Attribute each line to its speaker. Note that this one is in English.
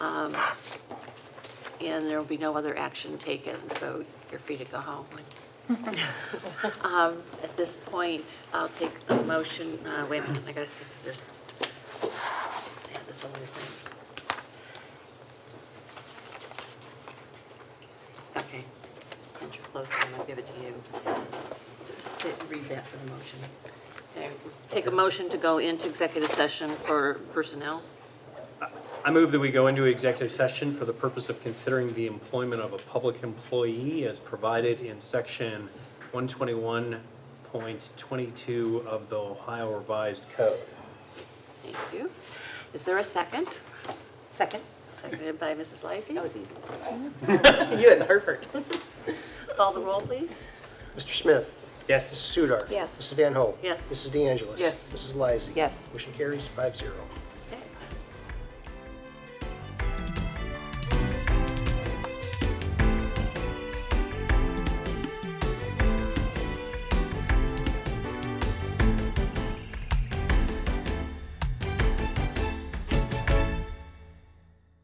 Speaker 1: and there will be no other action taken, so you're free to go home. Um, At this point, I'll take a motion, uh, wait a minute, I gotta see, because there's, I have this other thing. Okay, enter close, and I'll give it to you. S- sit- Read that for the motion. Okay, Take a motion to go into executive session for personnel.
Speaker 2: I move that we go into executive session for the purpose of considering the employment of a public employee as provided in section 121.22 of the Ohio Revised Code.
Speaker 1: Thank you. Is there a second? Second. Seconded by Mrs. Lysy. That was easy.
Speaker 3: You and Herbert.
Speaker 1: Call the roll, please.
Speaker 4: Mr. Smith.
Speaker 2: Yes?
Speaker 4: Mrs. Sudar.
Speaker 3: Yes.
Speaker 4: Mrs. Van Hoen.
Speaker 1: Yes.
Speaker 4: Mrs. De Angelis.
Speaker 3: Yes.
Speaker 4: Mrs. Lysy.
Speaker 3: Yes.
Speaker 4: Motion carries five zero.